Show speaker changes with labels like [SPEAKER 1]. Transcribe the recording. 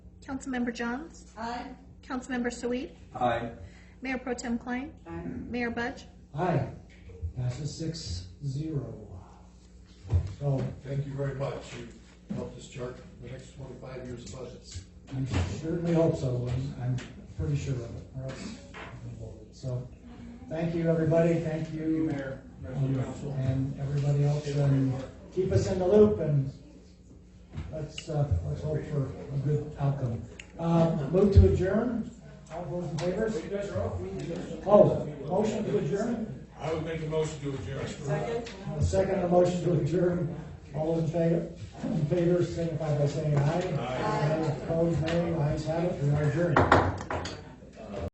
[SPEAKER 1] Councilmember Johns?
[SPEAKER 2] Aye.
[SPEAKER 1] Councilmember Sweet?
[SPEAKER 3] Aye.
[SPEAKER 1] Mayor Pro Tem Klein?
[SPEAKER 2] Aye.
[SPEAKER 1] Mayor Budge?
[SPEAKER 4] Aye, passes six zero. So
[SPEAKER 5] Thank you very much. You helped us chart the next twenty-five years of budgets.
[SPEAKER 4] I'm certainly hope so, and I'm pretty sure of it, or else I'm gonna vote it. So, thank you, everybody, thank you. Mayor. And everybody else, and keep us in the loop, and let's, uh, let's hope for a good outcome. Uh, move to adjourn, all those in favor?
[SPEAKER 6] You guys are off.
[SPEAKER 4] Oh, motion to adjourn,
[SPEAKER 6] I would make a motion to adjourn.
[SPEAKER 2] Second?
[SPEAKER 4] a second on the motion to adjourn, all those in favor, in favor, signify by saying aye. Aye. Opposed, nay, ayes have it, we are adjourned.